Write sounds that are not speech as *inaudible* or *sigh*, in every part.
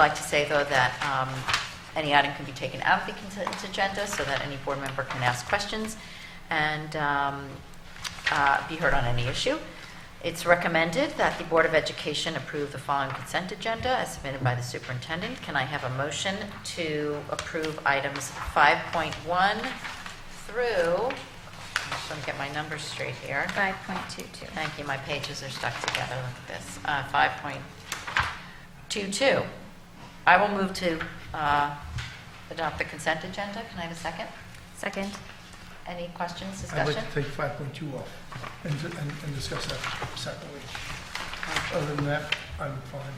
like to say, though, that um, any item can be taken out of the consent agenda so that any board member can ask questions and um, uh, be heard on any issue. It's recommended that the Board of Education approve the following consent agenda as submitted by the superintendent. Can I have a motion to approve items 5.1 through, I'm just going to get my numbers straight here. 5.22. Thank you, my pages are stuck together, look at this. Uh, 5.22. I will move to uh, adopt the consent agenda. Can I have a second? Second. Any questions, I'd discussion? like to take 5.2 off and, and and discuss that separately. Other than that, I'm fine.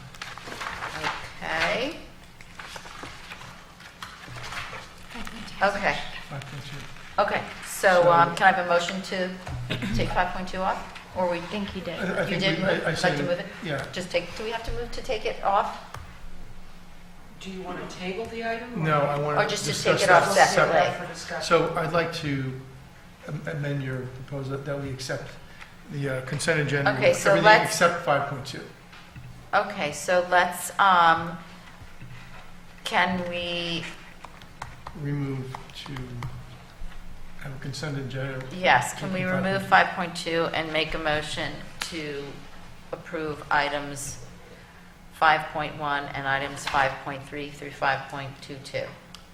Okay. Okay, 5.2. okay. So um, can I have a motion to take 5.2 off? Or we, I think you did. I- I you did think we- I- move- I like said to move it? Yeah. Just take, do we have to move to take it off? Do you want to table the item? or- No, I want Mm-hmm. Or to just discuss to that take it off separate. separately. For discussion. So I'd like to am- amend your proposal that we accept the uh, consent agenda. with Okay, so Everything let's- except 5.2. Okay, so let's, um, can we, Remove to have a consent agenda. Yes, can we Taking five remove point- 5.2 and make a motion to approve items 5.1 and items 5.3 through 5.22?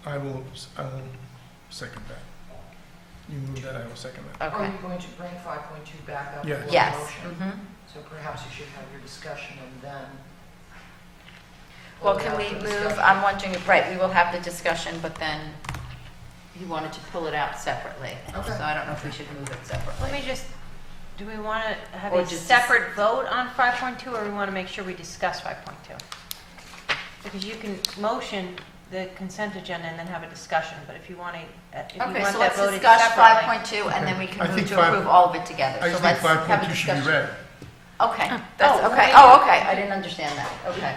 I will, s- I will second that. You move that, I will second that. Are Okay, you going to bring 5.2 back up? Yes. for a yes. motion? mhm. So perhaps you should have your discussion and then. Well, hold it can out we for move, discussion. I'm wondering, right, we will have the discussion, but then you wanted to pull it out separately. Okay. So I don't know if we should move it Let me separately. just, do we want to have Or a just- separate vote on 5.2, or we want to make sure we discuss 5.2? Because you can motion the consent agenda and then have a discussion, but if you want to, if you want Okay, so that let's voted discuss separately. 5.2 and then we Okay. can I move think to five- approve all of it together. I So just think let's have a 5.2 should be discussion. read. Okay, that's, that's- okay, wait. oh, okay, I didn't understand that, okay.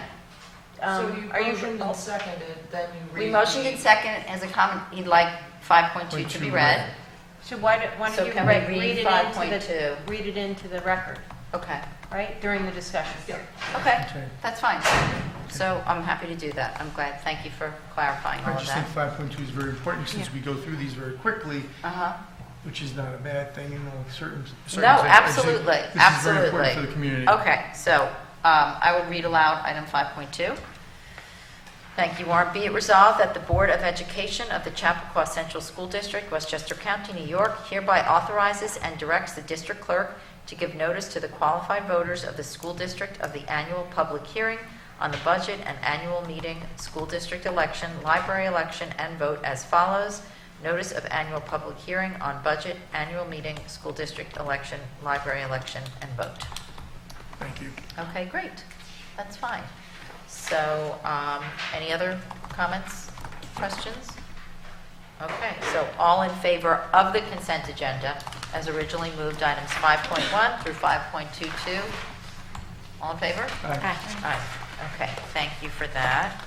So Um, you Are you, motioned and seconded, then you read. We motioned in second as a comment, he'd like 5.2 to be 5.2 read. read. so why don't why So don't you can re- we read read it into 5.2? the, read it into the record, Okay, right, during the discussion? Yeah. okay, Okay. that's fine. So I'm happy to do that. I'm glad, thank you for clarifying I all of just think that. 5.2 is very important since we go through these very quickly, Uh-huh, which is not a bad thing in all certain circumstances. No, absolutely, This is very important for absolutely. the community. okay, so um, I will read aloud item 5.2. Thank you, Warren. Be it resolved that the Board of Education of the Chappaqua Central School District, Westchester County, New York hereby authorizes and directs the district clerk to give notice to the qualified voters of the school district of the annual public hearing on the budget and annual meeting, school district election, library election, and vote as follows. Notice of annual public hearing on budget, annual meeting, school district election, library election, and vote. Thank you. Okay, great. That's fine. So, um, any other comments, questions? Okay, so all in favor of the consent agenda as originally moved, items 5.1 through 5.22? All in favor? Aye. All right, okay, thank you for that.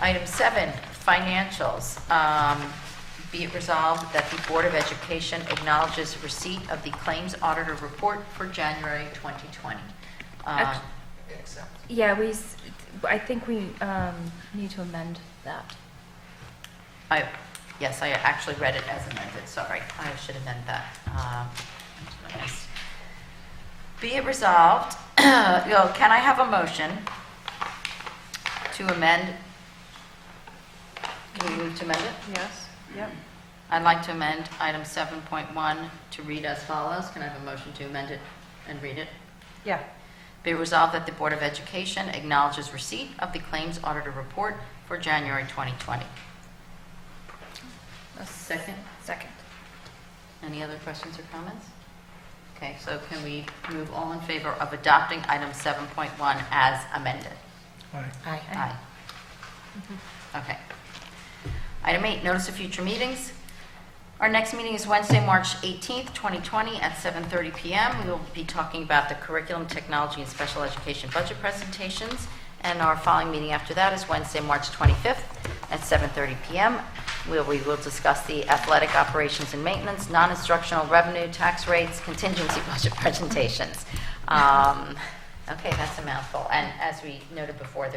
Item seven, financials. Um, Be it resolved that the Board of Education acknowledges receipt of the Claims Auditor Report for January 2020. Uh, Act- Accept. Yeah, we, s- I think we um, need to amend that. I, yes, I actually read it as amended, sorry, I should amend that. Um, yes. Be it resolved, *clears throat* you know, can I have a motion to amend? Can we move to amend it? Yes, yep. I'd like to amend item 7.1 to read as follows. Can I have a motion to amend it and read it? Yeah, Be it resolved that the Board of Education acknowledges receipt of the Claims Auditor Report for January 2020. Second? Second. Any other questions or comments? Okay, so can we move all in favor of adopting item 7.1 as amended? Aye. Aye. Okay. Item eight, notice of future meetings. Our next meeting is Wednesday, March 18th, 2020, at 7:30 PM. We will be talking about the curriculum, technology, and special education budget presentations, and our following meeting after that is Wednesday, March 25th, at 7:30 PM, where we will discuss the athletic operations and maintenance, *laughs* non-instructional revenue, tax rates, contingency budget presentations. Um, Okay, that's a mouthful. And as we noted before, there